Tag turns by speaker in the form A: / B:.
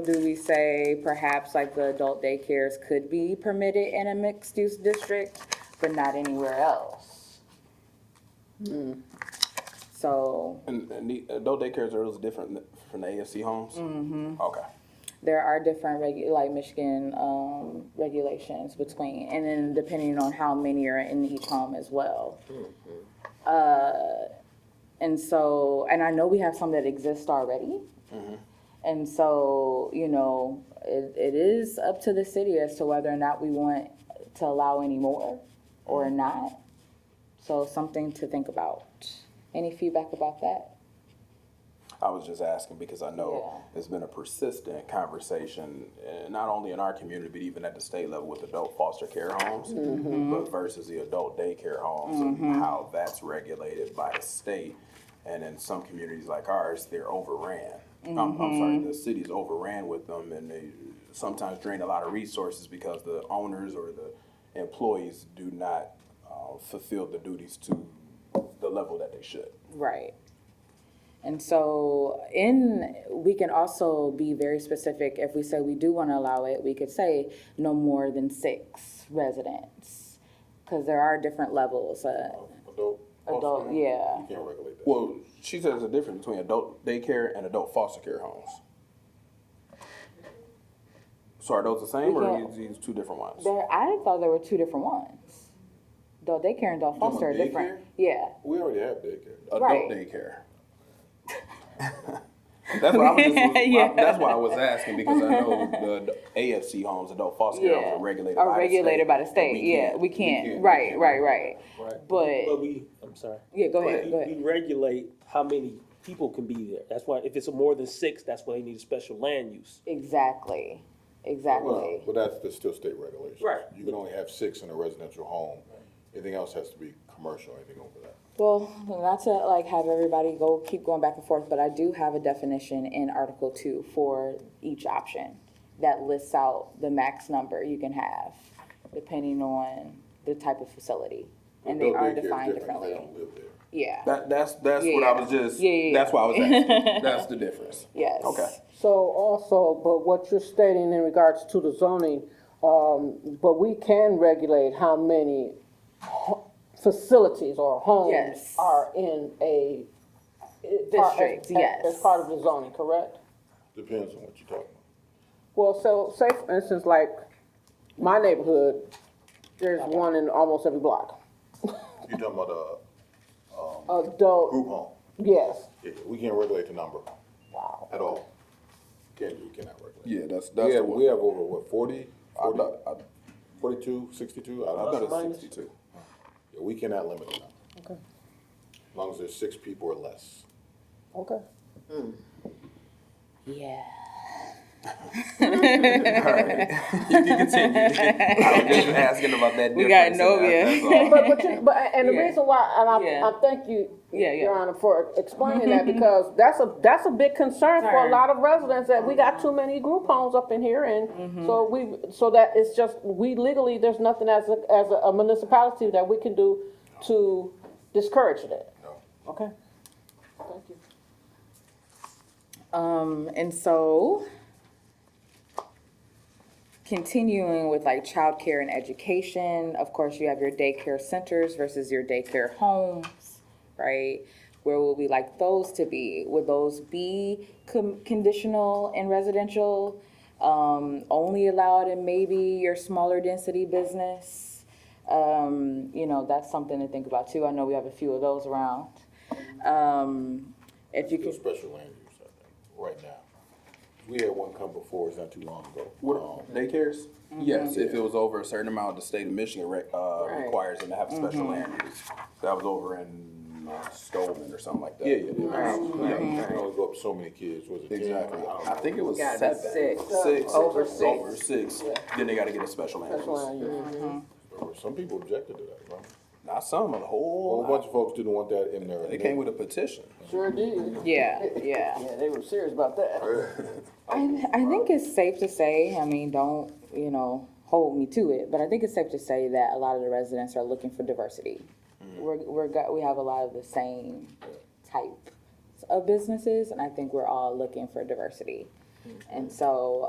A: Do we say perhaps like the adult daycares could be permitted in a mixed-use district, but not anywhere else? So
B: And, and the adult daycares are those different from the AFC homes? Mm-hmm. Okay.
A: there are different regu, like Michigan, um, regulations between, and then depending on how many are in each home as well. Uh, and so, and I know we have some that exist already. And so, you know, it, it is up to the city as to whether or not we want to allow any more or not. So something to think about. Any feedback about that?
B: I was just asking because I know it's been a persistent conversation, uh, not only in our community, but even at the state level with adult foster care homes, but versus the adult daycare homes and how that's regulated by the state. And in some communities like ours, they're overran. I'm, I'm sorry, the city's overran with them and they sometimes drain a lot of resources because the owners or the employees do not uh, fulfill the duties to the level that they should.
A: Right. And so in, we can also be very specific, if we say we do want to allow it, we could say no more than six residents. Because there are different levels, uh,
C: Adult.
A: adult, yeah,
C: Can't regulate that.
B: Well, she says there's a difference between adult daycare and adult foster care homes. So are those the same or are
A: Yeah.
B: these these two different ones?
A: there, I thought there were two different ones. Adult daycare and adult
B: talking
A: foster are
B: about
A: different, yeah,
C: We already have daycare.
A: right.
B: Adult daycare. That's what I was just,
A: Yeah.
B: that's why I was asking because I know the AFC homes, adult foster care homes
A: yeah.
B: are regulated by the
A: Are
B: state.
A: regulated by the
B: and
A: state, yeah, we can't, right, right, right.
D: But
A: But,
D: we, I'm sorry.
A: yeah, go
D: We-
A: ahead, go ahead,
D: We regulate how many people can be there. That's why, if it's more than six, that's why they need a special land use.
A: exactly,
C: Well,
A: exactly,
C: Um, But that's, that's still state regulation.
D: Right.
C: You can only have six in a residential home. Anything else has to be commercial, anything over that.
A: Well, not to like have everybody go, keep going back and forth, but I do have a definition in Article Two for each option that lists out the max number you can have, depending on the type of facility. And they
C: Adult
A: are
C: daycare is
A: defined
C: different 'cause
A: differently.
C: They don't live there.
A: Yeah,
B: That, that's, that's what
A: Yeah.
B: I was just,
A: Yeah, yeah,
B: that's
A: yeah.
B: why I was asking. That's the difference.
A: yes.
B: Okay.
E: So also, but what you're stating in regards to the zoning, um, but we can regulate how many ho- facilities or homes
A: Yes.
E: are in a.
A: District,
E: are-
A: yes.
E: As part of the zoning, correct?
C: Depends on what you're talking about.
E: Well, so say for instance, like my neighborhood, there's one in almost every block.
C: You're talking about a
E: Adult,
C: group home.
E: yes,
C: Yeah, we can't regulate the number. Wow. At all. Can't, you cannot regulate.
B: Yeah, that's,
C: We
B: that's the
C: have,
B: one.
C: we have over, what, forty?
B: I
C: Forty?
B: thought- I-
C: Forty-two, sixty-two? I
B: I
C: don't
B: thought it
C: know.
B: was sixty-two.
C: Yeah, We cannot limit the number. Okay. As long as there's six people or less.
E: okay.
A: Yeah.
B: You can continue. I was just asking about that difference.
A: We got
B: and that-
A: Novia.
B: that's all.
E: But, but, you, but, and the
A: Yeah.
E: reason why, and I,
A: Yeah.
E: I thank you,
A: Yeah, yeah.
E: Your Honor, for explaining that, because that's a, that's a big concern for
A: Concern.
E: a lot of residents, that we got too many group homes up in here, and so we, so that it's just, we legally, there's nothing as a, as a municipality that we can do to discourage that.
C: No.
E: Okay.
A: Um, and so continuing with like childcare and education, of course, you have your daycare centers versus your daycare homes, right? Where would we like those to be? Would those be com- conditional and residential? Um, only allowed in maybe your smaller density business? Um, you know, that's something to think about too. I know we have a few of those around. Um, if you
C: Still
A: could,
C: special land use, I think, right now. We had one come before, it's not too long ago. Um,
B: What, daycares? Yes, if it was over a certain amount, the state of Michigan rec, uh,
A: Right.
B: requires them to have a special land use. That was over in uh, Stoneman or something like that.
C: Yeah, yeah, yeah. You can only go up so many kids, was it? ten?
B: Exactly.
C: I don't
B: I think it was
A: Gotta be
B: seven.
A: six.
B: Six.
E: Over
B: It's
E: six.
B: Over six, then they gotta get a special land
E: That's why,
B: use.
E: you-
C: know. Some people objected to that, right?
B: Not some, a
C: A whole
B: whole
C: bunch
B: lot.
C: of folks didn't want that in there.
B: They came with a petition.
E: sure did.
A: yeah, yeah.
E: Yeah, they were serious about that.
A: I, I think it's safe to say, I mean, don't, you know, hold me to it, but I think it's safe to say that a lot of the residents are looking for diversity. We're, we're, got- we have a lot of the same type of businesses, and I think we're all looking for diversity. And so,